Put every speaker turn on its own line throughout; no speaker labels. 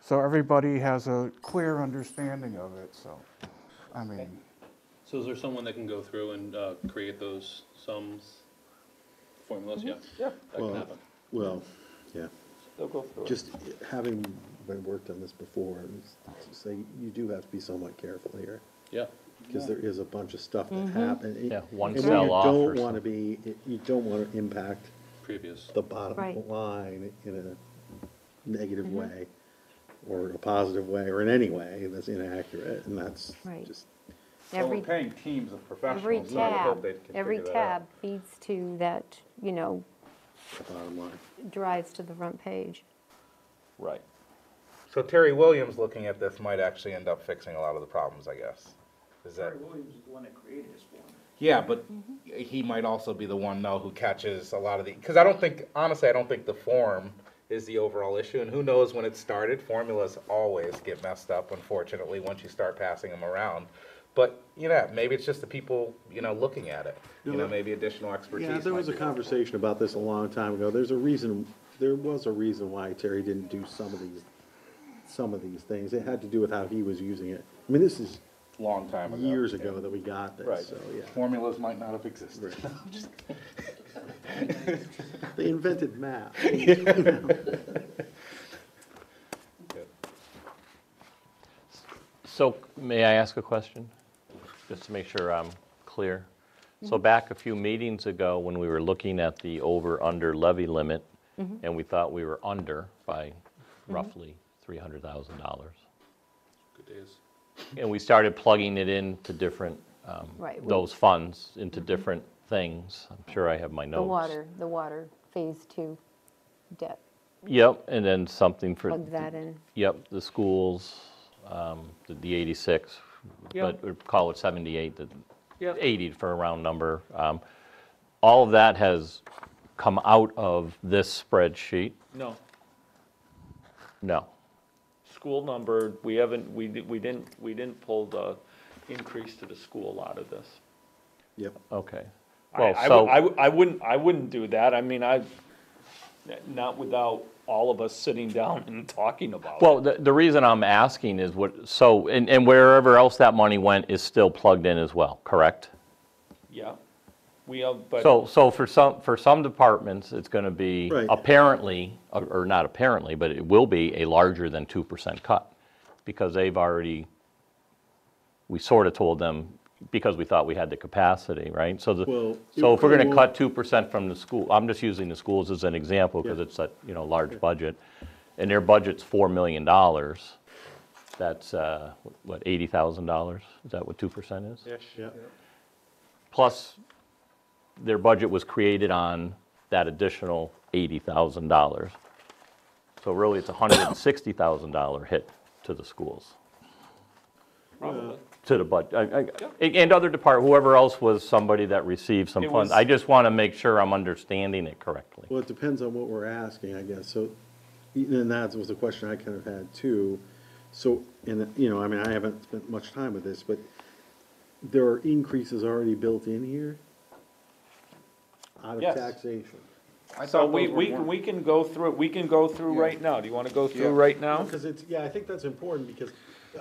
So everybody has a clear understanding of it, so, I mean,
So is there someone that can go through and uh, create those sums, formulas?
Mm-hmm.
Yeah.
Yeah,
That
Well-
can happen.
Well, yeah,
they'll go through it.
just having been worked on this before, it's- it's say, you do have to be somewhat careful here,
Yeah.
because there is a bunch of stuff that
Mm-hmm.
happen.
Yeah, one
And
fell off
You
or
don't wanna be, you don't wanna impact
Previous.
the bottom
Right. Mm-hmm.
line in a negative way, or a positive way, or in any way that's inaccurate, and that's
Right.
just,
Well, we're
Every,
paying teams of
every
professionals, so I would hope
tab,
they can
every
figure that out.
tab feeds to that, you know,
the bottom line.
drives to the front page.
Right.
So Terry Williams looking at this might actually end up fixing a lot of the problems, I guess. Is that?
Terry Williams is the one that created this form.
Yeah, but he might also be the one though who catches a lot of the, because I don't think, honestly, I don't think the form is the overall issue, and who knows when it started, formulas always get messed up, unfortunately, once you start passing them around. But, you know, maybe it's just the people, you know, looking at it, you
No,
know,
that-
maybe additional expertise.
Yeah, there
might
was a
be helpful.
conversation about this a long time ago. There's a reason, there was a reason why Terry didn't do some of these, some of these things. It had to do with how he was using it. I mean, this is
Long time ago.
years ago that we got
Right.
this, so, yeah.
Formulas might not have existed.
They invented math.
So may I ask a question? Just to make sure I'm clear.
Mm-hmm.
So back a few meetings ago, when we were looking at the over-under levy limit,
Mm-hmm.
and we thought we were under by roughly $300,000,
Good days.
and we started plugging it into different, um,
Right, we-
those funds into different things. I'm sure I have my notes.
Mm-hmm. The water, the water phase two debt,
Yep, and then something for.
plug that in.
Yep, the schools, um, the- the 86,
Yeah.
but we'd call it 78, the
Yeah.
80 for a round number. Um, All of that has come out of this spreadsheet?
No,
No.
school number, we haven't, we, di- we didn't, we didn't pull the increase to the school out of this.
Yep.
Okay.
I-
Well,
I,
so-
would- I, would- I wouldn't, I wouldn't do that, I mean, I, not without all of us sitting down and talking about it.
Well, the, the reason I'm asking is what, so, and, and wherever else that money went is still plugged in as well, correct?
Yeah, we have, but.
So, so for some, for some departments, it's going to be
Right.
apparently, or- or not apparently, but it will be a larger than 2% cut because they've already, we sort of told them because we thought we had the capacity, right? So
Well,
the,
it
so if we're going
probably
to cut 2% from the school, I'm just using the schools as an example because
Yeah.
it's a, you know, large budget. And their budget's $4 million. That's, uh, what, $80,000? Is that what 2% is?
Yeah.
plus their budget was created on that additional $80,000. So really, it's a $160,000 hit to the schools,
Probably.
to the budget. And other depart, whoever else was somebody that received some
It
funds.
was-
I just want to make sure I'm understanding it correctly.
Well, it depends on what we're asking, I guess. So, and that was the question I kind of had too. So, and, you know, I mean, I haven't spent much time with this, but there are increases already built in here out of
Yes.
taxation.
I
So
thought
we,
those were
we,
warned.
we can go through, we can go through right now, do you wanna go
Yeah.
through right now?
Because it's, yeah, I think that's important, because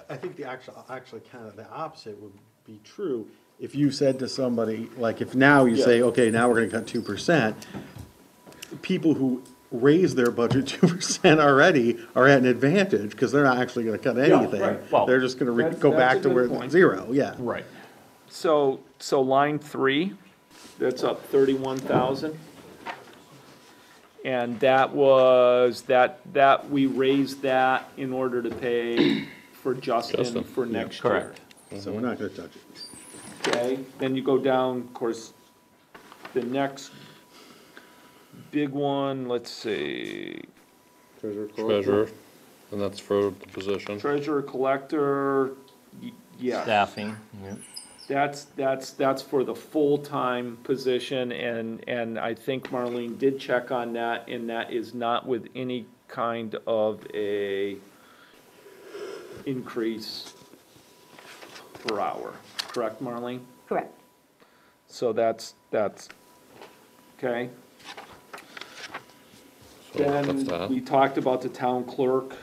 I think the actual, actually kind of the opposite would be true. If you said to somebody, like, if now you say, okay, now we're gonna cut two percent, people who raise their budget two percent already are at an advantage, because they're not actually gonna cut anything.
right. Well,
They're just gonna re-
that's-
go
that's a
back to
good
where,
point.
it's zero, yeah.
Right.
So, so line three, that's up thirty-one thousand. And that was, that, that, we raised that in order to pay for Justin
Justin,
for next year.
correct.
So we're not gonna touch it.
Okay, then you go down, of course, the next big one, let's see,
Treasurer, and that's for the position.
treasurer collector, y- yeah.
Staffing.
That's, that's, that's for the full-time position, and, and I think Marlene did check on that, and that is not with any kind of a increase per hour, correct, Marlene?
Correct.
So that's, that's, okay?
So that's that.
Then we talked about the town clerk.